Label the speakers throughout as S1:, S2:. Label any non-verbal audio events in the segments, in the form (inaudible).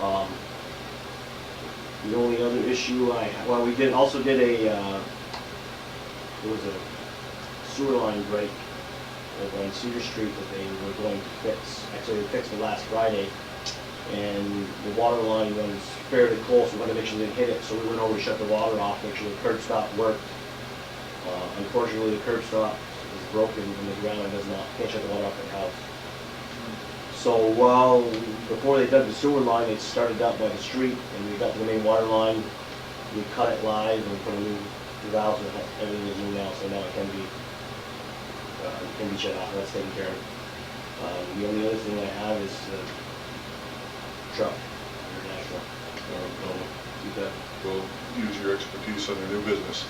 S1: Um, The only other issue I, well, we did, also did a, uh, there was a sewer line break over on Cedar Street that they were going to fix. Actually, they fixed it last Friday, and the water line was fairly close, we wanted to make sure they didn't hit it, so we went over, shut the water off, make sure the curb stop worked. Uh, Unfortunately, the curb stop is broken and the ground does not, can't shut the water off at the house. So while, before they dug the sewer line, they started out by the street, and we got to the main water line, we cut it live and put a new valve, and everything is new now, so now it can be, uh, it can be shut off, that's taken care of. Uh, the only other thing I have is the truck, international, or, or, keep that,
S2: We'll use your expertise on your new business.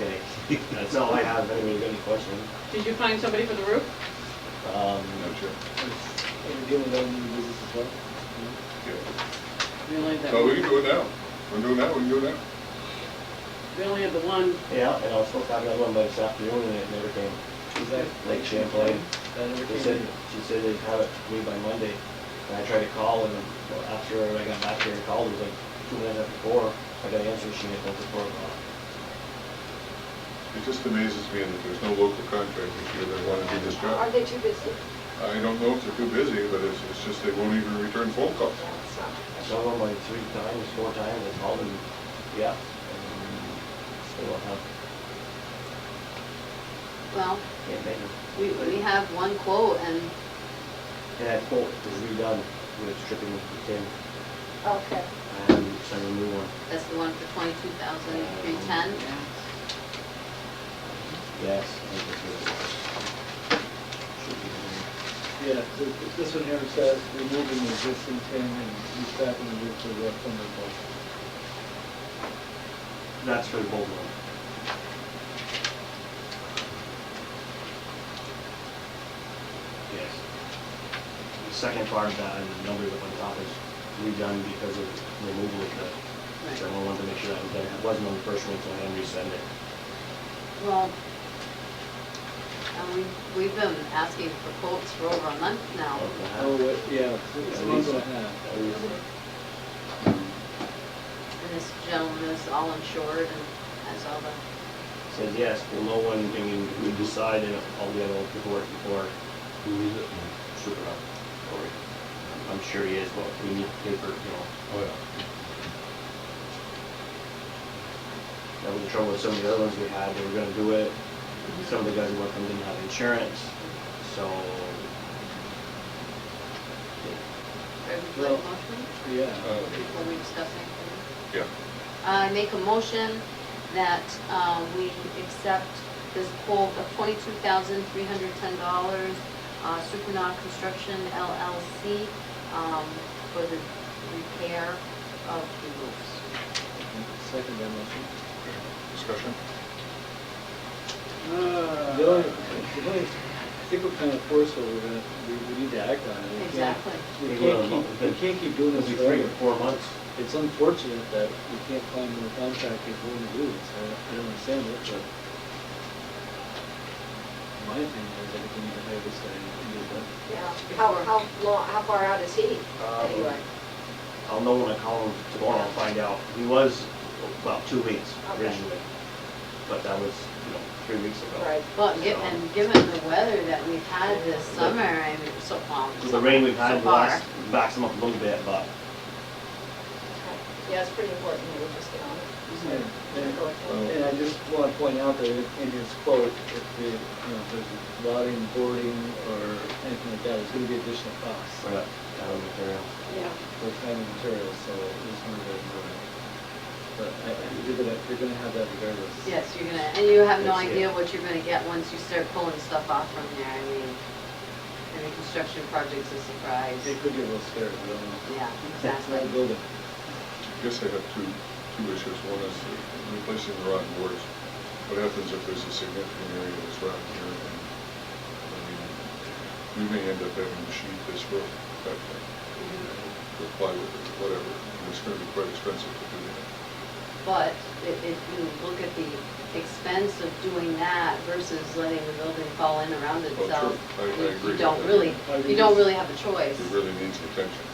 S1: okay. (laughs) That's all I have, if anybody's got any questions.
S3: Did you find somebody for the roof?
S1: Um,
S2: No, Jim?
S4: Are we dealing with other new business as well?
S2: Yeah.
S3: We only had that
S2: No, we
S3: one.
S2: can do it now. We're doing that, we can do it now.
S3: We only had the one.
S1: yeah, and I was supposed to have another one by this afternoon, and it never came.
S4: Is that?
S1: Lake Champlain.
S4: That never
S1: They
S4: came
S1: said,
S4: in?
S1: she said they'd have it to me by Monday, and I tried to call, and well, after I got back here and called, it was like two minutes after four, I got an answer machine at four o'clock.
S2: It just amazes me that there's no local contractors here that want to do this
S5: Are
S2: job.
S5: they too busy?
S2: I don't know if they're too busy, but it's, it's just they won't even return phone calls.
S5: No, it's
S1: I
S5: not.
S1: saw them like three times, four times, I called them, yeah, and still don't have,
S6: Well,
S1: can't make it.
S6: we, we have one quote and
S1: And that quote was redone, with it's stripping with the tin,
S5: Okay.
S1: and sent a new one.
S6: that's the one for twenty-two thousand three ten.
S1: Yes, I think that's what it was. Should be in there.
S4: Yeah, so th- this one here says removing the existing tin and restaffing the roof with the timber bulk.
S1: That's for the bold one. Yes. The second part of that, and the number that went top is redone because of removal of the, so I wanted to make sure that was done. It wasn't on the first one, so I had to resend it.
S6: Well, and we, we've been asking for quotes for over a month now.
S4: Oh,
S1: Okay.
S4: wait, yeah, it's- it's
S1: Ah. At
S4: a month
S1: least.
S4: and a half.
S1: That was-
S6: And this gentleman is all insured and has all the,
S1: Says yes, well, no one, I mean, we decided all the other paperwork before.
S7: Who is it? Shook it up.
S1: or I'm sure he is, but we need paper, you know.
S7: Oh, yeah.
S1: That was the trouble with some of the other ones we had, they were gonna do it, some of the guys who worked on didn't have insurance, so.
S6: would you like a motion
S4: Yeah.
S1: Oh.
S2: Uh,
S6: before we discuss anything?
S2: Yeah,
S6: Uh, I make a motion that, uh, we accept this quote of twenty-two thousand three hundred ten dollars, uh, Supernaut Construction LLC, um, for the repair of the roofs.
S4: Second that motion.
S2: discussion?
S3: uh,
S4: The only, the only- I think we're kind of forced, so we're gonna, we, we need to act on it. We can't-
S6: Exactly.
S4: We can't keep, we can't keep doing
S1: It'll
S4: this
S1: be three or
S4: forever.
S1: four months.
S4: It's unfortunate that we can't find more contractors willing to do this. I I don't understand it, but my opinion is that we need to hire this guy and get it done.
S5: Yeah. How, how long, how far out is he?
S1: Um,
S5: Anyway,
S1: I'll know when I call him tomorrow, I'll find out. He was about two weeks
S5: Okay.
S1: originally, but that was, you know, three weeks ago.
S5: right.
S6: Well, gi- and given the weather that we've had this summer, I mean, so far.
S1: With The rain we've had
S6: so far.
S1: last, backs him up a little bit, but
S5: Yeah, it's pretty important that we just get on it.
S4: And- and-
S5: Go ahead.
S4: And I just want to point out that in in his quote, if the, you know, if there's lotting, boarding, or anything like that, there's going to be additional costs
S1: we're not down on material.
S5: Yeah.
S4: for time and materials, so it's going to be important. But I, I- you're going to, you're going to have that regardless.
S6: Yes, you're gonna, and you have no
S1: That's it.
S6: idea what you're gonna get once you start pulling stuff off from there, I mean, and the construction project's a surprise.
S4: It could get a little scary, I don't know.
S6: Yeah,
S4: It's not a
S6: exactly.
S4: building.
S2: I guess I have two, two issues. One is the replacing the rotten boards. What happens if there's a significant area that's rotten here? and, I mean, We may end up having to sheet this uh, roof, that thing, or plywood, or whatever. And it's going to be quite expensive to do that.
S6: But if, if you look at the expense of doing that versus letting the building fall in around
S2: Well, Oh, true.
S6: itself,
S2: I- I
S6: you-
S2: agree.
S6: you don't really,
S4: I think
S6: you don't
S4: it's-
S6: really have a choice.
S2: It really needs attention.